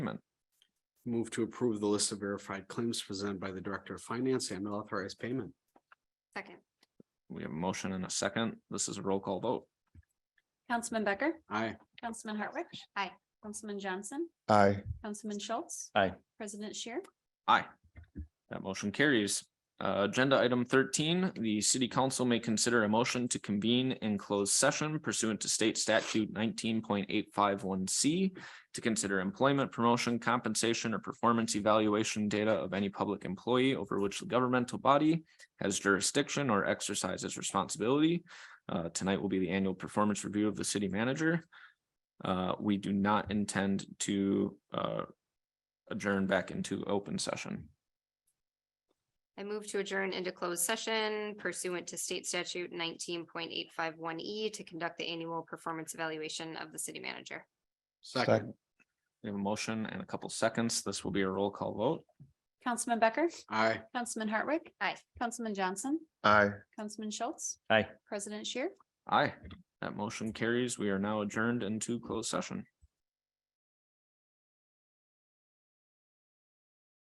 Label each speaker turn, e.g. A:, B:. A: Move to approve the list of verified claims presented by the Director of Finance and authorize payment.
B: Second.
C: We have a motion and a second. This is a roll call vote.
D: Councilman Becker,
A: Aye.
D: Councilman Hartwick.
B: Aye.
D: Councilman Johnson,
E: aye,
D: Councilman Schultz.
C: Aye.
D: President Shear,
C: Aye. That motion carries. Uh, agenda item thirteen, the city council may consider a motion to convene in closed session pursuant to state statute nineteen point eight five one C to consider employment, promotion, compensation, or performance evaluation data of any public employee over which the governmental body has jurisdiction or exercises responsibility. Uh, tonight will be the annual performance review of the city manager. Uh, we do not intend to, uh, adjourn back into open session.
B: I move to adjourn into closed session pursuant to state statute nineteen point eight five one E to conduct the annual performance evaluation of the city manager.
A: Second.
C: We have a motion and a couple seconds. This will be a roll call vote.
D: Councilman Becker,
A: Aye.
D: Councilman Hartwick.
B: Aye.
D: Councilman Johnson,
E: aye.
D: Councilman Schultz.
C: Aye.
D: President Shear.
C: Aye, that motion carries. We are now adjourned into closed session.